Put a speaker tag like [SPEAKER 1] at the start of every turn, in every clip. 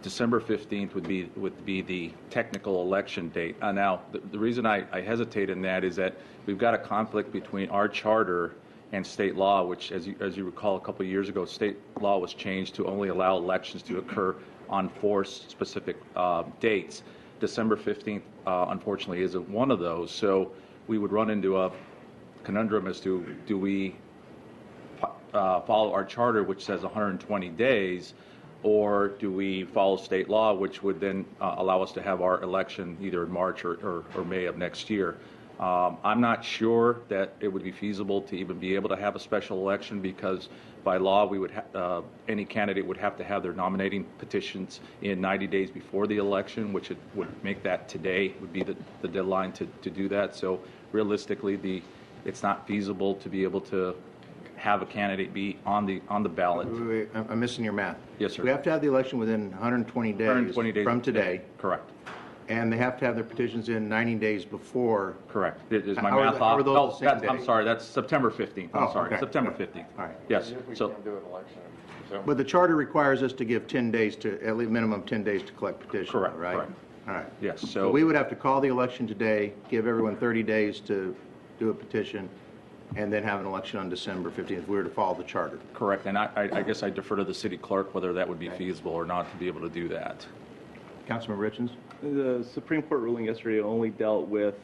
[SPEAKER 1] December 15th would be, would be the technical election date. Uh, Now, the- the reason I I hesitate in that is that we've got a conflict between our charter and state law, which, as you, as you recall, a couple of years ago, state law was changed to only allow elections to occur on four s- specific uh, dates. December 15th, uh, unfortunately, isn't one of those, so we would run into a conundrum as to, do we uh, follow our charter, which says 120 days, or do we follow state law, which would then uh, allow us to have our election either in March or, or, or May of next year? Um, I'm not sure that it would be feasible to even be able to have a special election because by law, we would, ha- uh, any candidate would have to have their nominating petitions in 90 days before the election, which it would make that today would be the, the deadline to, to do that. So realistically, the, it's not feasible to be able to have a candidate be on the, on the ballot.
[SPEAKER 2] Wait, wait, I'm I'm missing your math.
[SPEAKER 1] Yes, sir.
[SPEAKER 2] We have to have the election within 120 days.
[SPEAKER 1] 120 days.
[SPEAKER 2] From today,
[SPEAKER 1] Correct,
[SPEAKER 2] and they have to have their petitions in 90 days before.
[SPEAKER 1] correct. Is is my
[SPEAKER 2] How are
[SPEAKER 1] math
[SPEAKER 2] the-
[SPEAKER 1] off?
[SPEAKER 2] how are those
[SPEAKER 1] No,
[SPEAKER 2] the same
[SPEAKER 1] that's- I'm
[SPEAKER 2] day?
[SPEAKER 1] sorry, that's September 15th. I'm
[SPEAKER 2] Oh,
[SPEAKER 1] sorry,
[SPEAKER 2] okay.
[SPEAKER 1] September
[SPEAKER 2] Yeah.
[SPEAKER 1] 15th.
[SPEAKER 2] All right.
[SPEAKER 1] Yes,
[SPEAKER 3] We
[SPEAKER 1] so,
[SPEAKER 3] can't do an election, so.
[SPEAKER 2] But the charter requires us to give 10 days to, at least minimum 10 days to collect petitions,
[SPEAKER 1] Correct,
[SPEAKER 2] right?
[SPEAKER 1] correct.
[SPEAKER 2] All right.
[SPEAKER 1] yes,
[SPEAKER 2] So
[SPEAKER 1] so.
[SPEAKER 2] we would have to call the election today, give everyone 30 days to do a petition, and then have an election on December 15th, if we were to follow the charter.
[SPEAKER 1] Correct, and I, I I guess I defer to the city clerk whether that would be feasible or not to be able to do that.
[SPEAKER 2] Councilman Richens?
[SPEAKER 4] The Supreme Court ruling yesterday only dealt with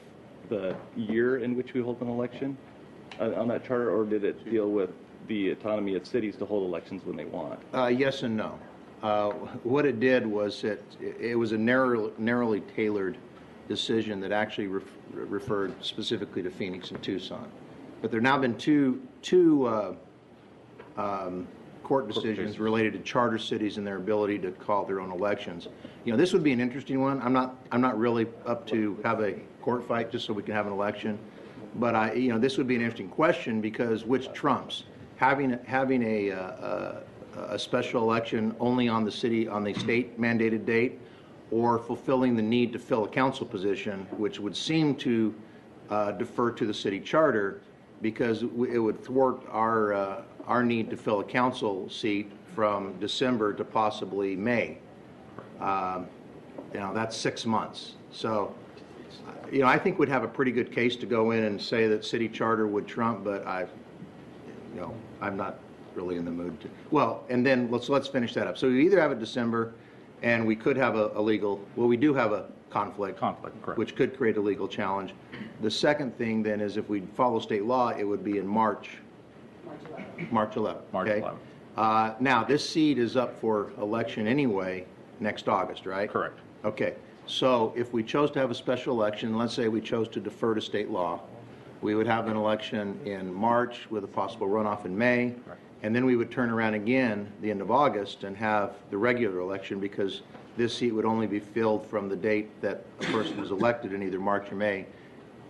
[SPEAKER 4] the year in which we hold an election uh, on that charter, or did it deal with the autonomy of cities to hold elections when they want?
[SPEAKER 2] Uh, Yes and no. Uh, What it did was it, it was a narrow- narrowly tailored decision that actually ref- referred specifically to Phoenix and Tucson. But there have now been two, two uh, um, court decisions
[SPEAKER 1] decisions.
[SPEAKER 2] related to charter cities and their ability to call their own elections. You know, this would be an interesting one. I'm not, I'm not really up to have a court fight just so we can have an election. But I, you know, this would be an interesting question because which trumps? Having, having a, uh, uh, a special election only on the city, on the state mandated date, or fulfilling the need to fill a council position, which would seem to uh, defer to the city charter because we- it would thwart our, uh, our need to fill a council seat from December to possibly May. Um, You know, that's six months. So, uh, you know, I think we'd have a pretty good case to go in and say that city charter would trump, but I, you know, I'm not really in the mood to, well, and then let's, let's finish that up. So we either have it December and we could have a, a legal, well, we do have a conflict.
[SPEAKER 1] Conflict, correct.
[SPEAKER 2] Which could create a legal challenge. The second thing then is if we follow state law, it would be in March. March 11th.
[SPEAKER 1] March
[SPEAKER 2] okay?
[SPEAKER 1] 11th.
[SPEAKER 2] Uh, Now, this seat is up for election anyway next August, right?
[SPEAKER 1] Correct.
[SPEAKER 2] Okay, so if we chose to have a special election, let's say we chose to defer to state law, we would have an election in March with a possible runoff in May, and then we would turn around again the end of August and have the regular election because this seat would only be filled from the date that a person was elected in either March or May,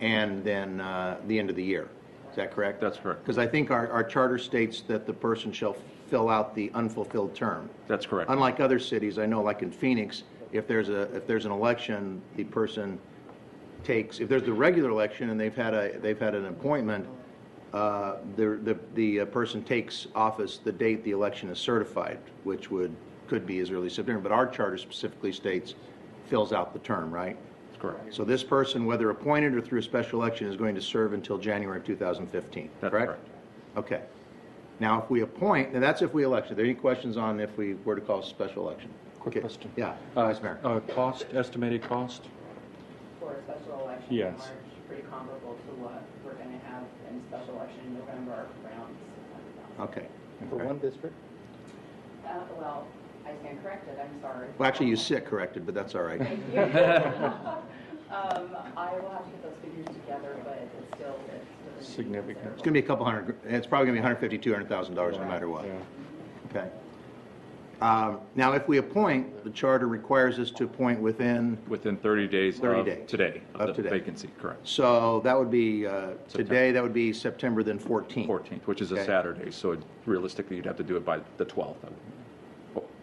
[SPEAKER 2] and then uh, the end of the year. Is that correct?
[SPEAKER 1] That's correct.
[SPEAKER 2] Because I think our, our charter states that the person shall fill out the unfulfilled term.
[SPEAKER 1] That's correct.
[SPEAKER 2] Unlike other cities, I know like in Phoenix, if there's a, if there's an election, the person takes, if there's the regular election and they've had a, they've had an appointment, uh, the, the, the uh, person takes office the date the election is certified, which would, could be as early as September, but our charter specifically states fills out the term, right?
[SPEAKER 1] That's correct.
[SPEAKER 2] So this person, whether appointed or through a special election, is going to serve until January of 2015,
[SPEAKER 1] That's
[SPEAKER 2] correct?
[SPEAKER 1] correct.
[SPEAKER 2] Okay. Now, if we appoint, now that's if we election. Are there any questions on if we were to call a special election?
[SPEAKER 5] Quick
[SPEAKER 2] Okay.
[SPEAKER 5] question.
[SPEAKER 2] Yeah,
[SPEAKER 5] Uh,
[SPEAKER 2] Vice Mayor.
[SPEAKER 5] uh, Cost, estimated cost?
[SPEAKER 6] for a special election in
[SPEAKER 5] Yes.
[SPEAKER 6] March, pretty comparable to what we're going to have in special election in November around. $600,000.
[SPEAKER 2] Okay.
[SPEAKER 4] For one district?
[SPEAKER 6] Uh, Well, I stand corrected, I'm sorry.
[SPEAKER 2] Well, actually, you sit corrected, but that's all right.
[SPEAKER 6] Thank you. Um, I will have to get those figures together, but it's still, it's. still gonna be
[SPEAKER 5] Significant.
[SPEAKER 2] It's going to be a couple hundred, gr- it's probably going to be 150, 200,000 dollars no matter what.
[SPEAKER 5] Yeah.
[SPEAKER 2] Okay. Um, Now, if we appoint, the charter requires us to appoint within,
[SPEAKER 1] Within 30 days
[SPEAKER 2] 30
[SPEAKER 1] of
[SPEAKER 2] days.
[SPEAKER 1] today,
[SPEAKER 2] Of
[SPEAKER 1] of the
[SPEAKER 2] today.
[SPEAKER 1] vacancy, correct.
[SPEAKER 2] so that would be, uh, today,
[SPEAKER 1] September.
[SPEAKER 2] that would be September then 14th.
[SPEAKER 1] 14th, which is a
[SPEAKER 2] Okay.
[SPEAKER 1] Saturday, so realistically, you'd have to do it by the 12th.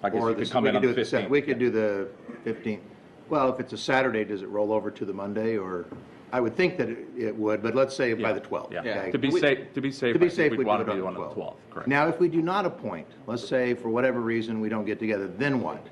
[SPEAKER 1] I guess
[SPEAKER 2] Or
[SPEAKER 1] you
[SPEAKER 2] the-
[SPEAKER 1] could come
[SPEAKER 2] we
[SPEAKER 1] in
[SPEAKER 2] could
[SPEAKER 1] on the
[SPEAKER 2] do it Sat-
[SPEAKER 1] 15th.
[SPEAKER 2] We could do the 15th. Well, if it's a Saturday, does it roll over to the Monday, or, I would think that it- it would, but let's say by the 12th.
[SPEAKER 1] Yeah,
[SPEAKER 2] okay?
[SPEAKER 1] to be safe, to be safe,
[SPEAKER 2] To
[SPEAKER 1] I
[SPEAKER 2] be
[SPEAKER 1] think
[SPEAKER 2] safe,
[SPEAKER 1] we'd
[SPEAKER 2] we do it
[SPEAKER 1] want
[SPEAKER 2] on
[SPEAKER 1] to
[SPEAKER 2] the
[SPEAKER 1] be one of the
[SPEAKER 2] 12th.
[SPEAKER 1] 12th, correct.
[SPEAKER 2] Now, if we do not appoint, let's say for whatever reason, we don't get together, then what?